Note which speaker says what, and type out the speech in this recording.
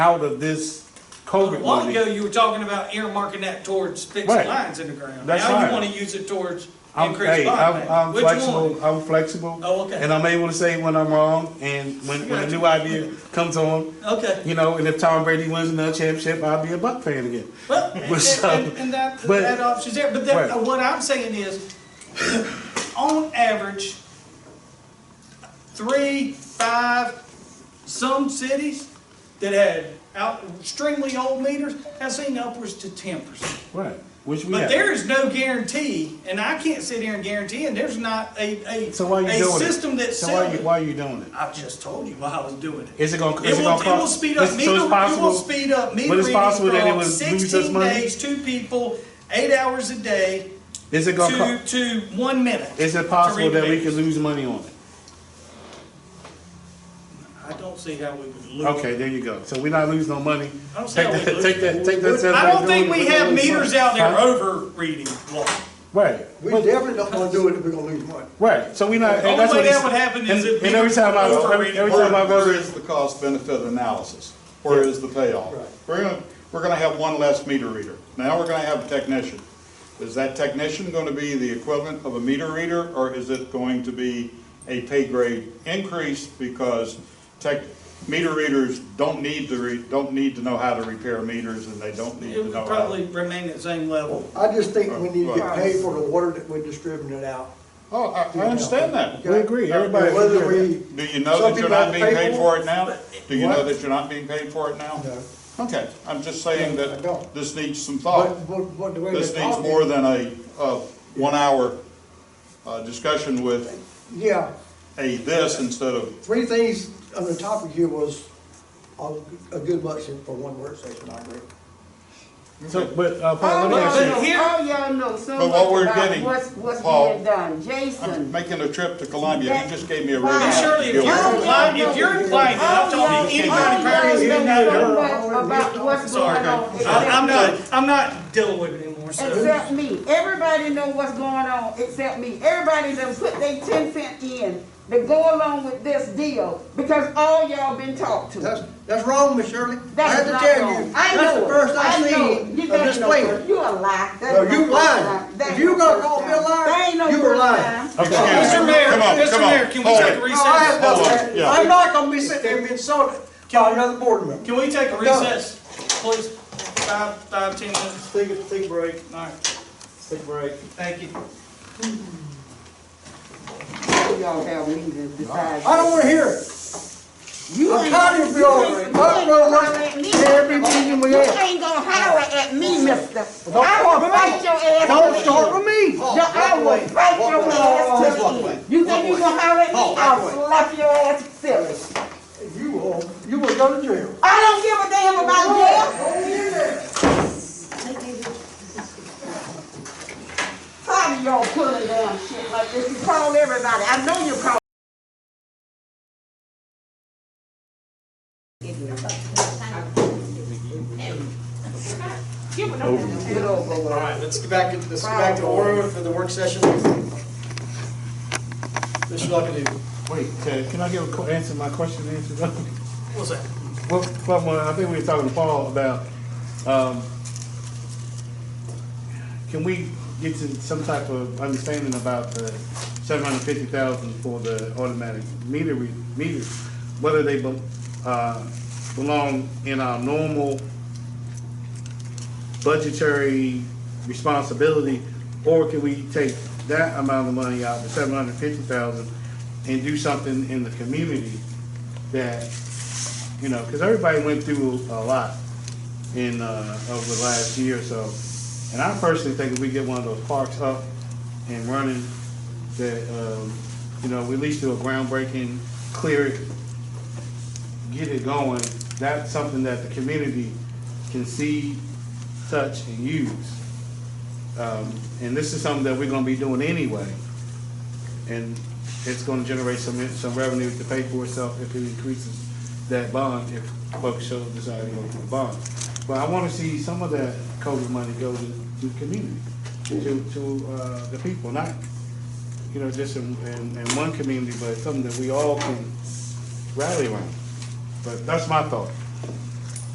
Speaker 1: out of this
Speaker 2: A
Speaker 1: COVID
Speaker 2: while ago,
Speaker 1: money.
Speaker 2: you were talking about earmarking that towards fixing
Speaker 1: Right.
Speaker 2: lines in the ground.
Speaker 1: That's
Speaker 2: Now
Speaker 1: right.
Speaker 2: you wanna use it towards
Speaker 1: I'm,
Speaker 2: increased
Speaker 1: hey,
Speaker 2: bond
Speaker 1: I'm,
Speaker 2: payment.
Speaker 1: I'm
Speaker 2: Which one?
Speaker 1: flexible, I'm flexible.
Speaker 2: Oh, okay.
Speaker 1: And I'm able to say when I'm wrong and when, when a new idea comes on,
Speaker 2: Okay,
Speaker 1: you know, and if Tom Brady wins another championship, I'll be a Buck fan again.
Speaker 2: well, and,
Speaker 1: So,
Speaker 2: and- and that,
Speaker 1: but-
Speaker 2: that option's there, but that, uh,
Speaker 1: Right.
Speaker 2: what I'm saying is, on average, three, five, some cities that had out, extremely old meters, have seen upwards to ten percent.
Speaker 1: Right, which we
Speaker 2: But
Speaker 1: have.
Speaker 2: there is no guarantee, and I can't sit here and guarantee, and there's not a, a,
Speaker 1: So why are you
Speaker 2: a
Speaker 1: doing it?
Speaker 2: system that's
Speaker 1: So why are
Speaker 2: selling.
Speaker 1: you, why are you doing it?
Speaker 2: I've just told you why I was doing it.
Speaker 1: Is it gonna,
Speaker 2: It
Speaker 1: is it
Speaker 2: will,
Speaker 1: gonna
Speaker 2: it
Speaker 1: cost?
Speaker 2: will speed up
Speaker 1: so it's
Speaker 2: meter, it will
Speaker 1: possible-
Speaker 2: speed up meter
Speaker 1: but it's possible that it
Speaker 2: reading from
Speaker 1: was- lose us
Speaker 2: sixteen
Speaker 1: money?
Speaker 2: days, two people, eight hours a day,
Speaker 1: Is it gonna
Speaker 2: to,
Speaker 1: cost?
Speaker 2: to one minute.
Speaker 1: Is
Speaker 2: to
Speaker 1: it possible
Speaker 2: read
Speaker 1: that we
Speaker 2: meters.
Speaker 1: could lose money on it?
Speaker 2: I don't see how we would lose.
Speaker 1: Okay, there you go. So we're not losing no money.
Speaker 2: I don't see
Speaker 1: Take
Speaker 2: how we
Speaker 1: that,
Speaker 2: lose.
Speaker 1: take that, take that.
Speaker 2: I don't think we have
Speaker 1: Huh?
Speaker 2: meters out there over reading law.
Speaker 1: Right.
Speaker 3: We definitely don't wanna do it if we're gonna lose money.
Speaker 1: Right, so we not. and
Speaker 2: only
Speaker 1: that's
Speaker 2: way
Speaker 1: what
Speaker 2: that
Speaker 1: it's-
Speaker 2: would happen is
Speaker 1: and-
Speaker 2: if
Speaker 1: And every
Speaker 2: we
Speaker 1: time I, every
Speaker 2: overrated
Speaker 1: every
Speaker 2: the
Speaker 1: time I
Speaker 4: Where where
Speaker 1: go,
Speaker 4: is the cost benefit analysis? Where is the payoff? We're gonna, we're gonna have one less meter reader. Now we're gonna have a technician. Is that technician gonna be the equivalent of a meter reader, or is it going to be a pay grade increase because tech, meter readers don't need to re, don't need to know how to repair meters and they don't need
Speaker 2: It
Speaker 4: to
Speaker 2: would
Speaker 4: know how
Speaker 2: probably
Speaker 4: to.
Speaker 2: remain at the same level.
Speaker 3: I just think we need to get paid for the water that we're distributing it out.
Speaker 4: Oh, I, I understand that.
Speaker 1: we agree, everybody.
Speaker 3: And Whether we.
Speaker 4: Do you know
Speaker 3: some
Speaker 4: that you're
Speaker 3: people have
Speaker 4: not
Speaker 3: to
Speaker 4: being
Speaker 3: pay
Speaker 4: paid for it now? Do you know
Speaker 1: What?
Speaker 4: that you're not being paid for it now?
Speaker 3: No.
Speaker 4: Okay, I'm just saying
Speaker 3: No, I
Speaker 4: that
Speaker 3: don't.
Speaker 4: this needs some
Speaker 3: But,
Speaker 4: thought.
Speaker 3: but, but the way.
Speaker 4: This
Speaker 3: they
Speaker 4: needs
Speaker 3: talk-
Speaker 4: more than a, a one-hour, uh, discussion with
Speaker 3: Yeah,
Speaker 4: a this instead of,
Speaker 3: three things on the topic here was a, a good motion for one work session, I agree.
Speaker 1: So, but, uh,
Speaker 5: All
Speaker 1: Paul, let me ask you.
Speaker 2: but
Speaker 5: y'all
Speaker 2: here-
Speaker 5: know, all y'all know so
Speaker 4: But what we're
Speaker 5: much about
Speaker 4: getting,
Speaker 5: what's, what's
Speaker 4: Paul,
Speaker 5: being done,
Speaker 4: I'm
Speaker 5: Jason.
Speaker 4: making a trip to Columbia, he just gave me a raise.
Speaker 5: Right.
Speaker 2: And surely, if
Speaker 4: You're
Speaker 2: you're implying, if you're implying that I'm
Speaker 5: All y'all-
Speaker 2: talking to anybody
Speaker 5: all
Speaker 2: prior to
Speaker 5: y'all
Speaker 2: you,
Speaker 5: know
Speaker 2: not her.
Speaker 5: so much about what's
Speaker 2: Sorry,
Speaker 5: going on.
Speaker 2: Craig. I- I'm not, I'm not dealing with it anymore, so.
Speaker 5: Except me. Everybody know what's going on except me. Everybody done put their ten cent in to go along with this deal because all y'all been talked
Speaker 3: That's,
Speaker 5: to.
Speaker 3: that's wrong, Miss Shirley. I
Speaker 5: That's
Speaker 3: have to
Speaker 5: not
Speaker 3: tell
Speaker 5: wrong.
Speaker 3: you,
Speaker 5: I
Speaker 3: that's
Speaker 5: know
Speaker 3: the
Speaker 5: it.
Speaker 3: first I
Speaker 5: know it.
Speaker 3: seen
Speaker 5: You
Speaker 3: of
Speaker 5: got
Speaker 3: this
Speaker 5: no-
Speaker 3: plan.
Speaker 5: You a lie. That's
Speaker 3: No, you
Speaker 5: no first
Speaker 3: lying.
Speaker 5: time.
Speaker 3: If
Speaker 5: That ain't
Speaker 3: you
Speaker 5: no
Speaker 3: gonna
Speaker 5: first
Speaker 3: call me a
Speaker 5: time.
Speaker 3: liar,
Speaker 5: That ain't no
Speaker 3: you were
Speaker 5: first
Speaker 3: lying.
Speaker 5: time.
Speaker 4: Excuse
Speaker 2: Mr.
Speaker 4: me.
Speaker 2: Mayor,
Speaker 4: Come on,
Speaker 2: Mr.
Speaker 4: come on.
Speaker 2: Mayor, can we
Speaker 4: Hold
Speaker 2: take a
Speaker 4: it.
Speaker 3: No, I have
Speaker 2: recess?
Speaker 3: no
Speaker 4: Hold on,
Speaker 3: plan.
Speaker 4: yeah.
Speaker 3: I'm not gonna be sitting there being insulted by another board member.
Speaker 2: Can we take a recess, please? Five, five, ten minutes?
Speaker 3: Take, a- take a break,
Speaker 2: All right,
Speaker 3: take a break.
Speaker 2: thank you.
Speaker 5: All y'all have meetings besides.
Speaker 3: I don't wanna hear it.
Speaker 5: You
Speaker 3: I'm
Speaker 5: ain't
Speaker 3: tired of
Speaker 5: gonna-
Speaker 3: y'all.
Speaker 5: you
Speaker 3: I'm
Speaker 5: ain't- you ain't
Speaker 3: gonna
Speaker 5: gonna
Speaker 3: work
Speaker 5: let me-
Speaker 3: every meeting we
Speaker 5: You
Speaker 3: have.
Speaker 5: ain't gonna holler at me, mister. I
Speaker 3: start
Speaker 5: will
Speaker 3: with me.
Speaker 5: fight your ass. to
Speaker 3: Don't
Speaker 5: the
Speaker 3: start
Speaker 5: end.
Speaker 3: with me.
Speaker 5: No, I will fight your ass to the end. You think you gonna holler at me? I'll slap your ass silly.
Speaker 3: You will, you will go to jail.
Speaker 5: I don't give a damn about jail. Tired of y'all pulling down shit like this. You call everybody. I know you call. Give it over. Get it over.
Speaker 6: All right, let's get back, into- let's get back to order for the work session. Mr. Luckadoo.
Speaker 1: Wait, can, can I give a, que- answer my question, answer? Well,
Speaker 2: What's that?
Speaker 1: Paul, well, I think we were talking to Paul about, um, can we get to some type of understanding about the seven hundred fifty thousand for the automatic meter, re- meters? Whether they, be- uh, belong in our normal budgetary responsibility, or can we take that amount of money out, the seven hundred fifty thousand, and do something in the community that, you know, because everybody went through a lot in, uh, over the last year or so. And I personally think if we get one of those parks up and running, that, um, you know, we at least do a groundbreaking, clear it, get it going, that's something that the community can see, touch, and use. Um, and this is something that we're gonna be doing anyway. And it's gonna generate some, some revenue to pay for itself if it increases that bond, if folks show desire to go for the bond. But I wanna see some of that COVID money go to, to the community, to, to, uh, the people, not, you know, just in, in, in one community, but something that we all can rally around. But that's my thought.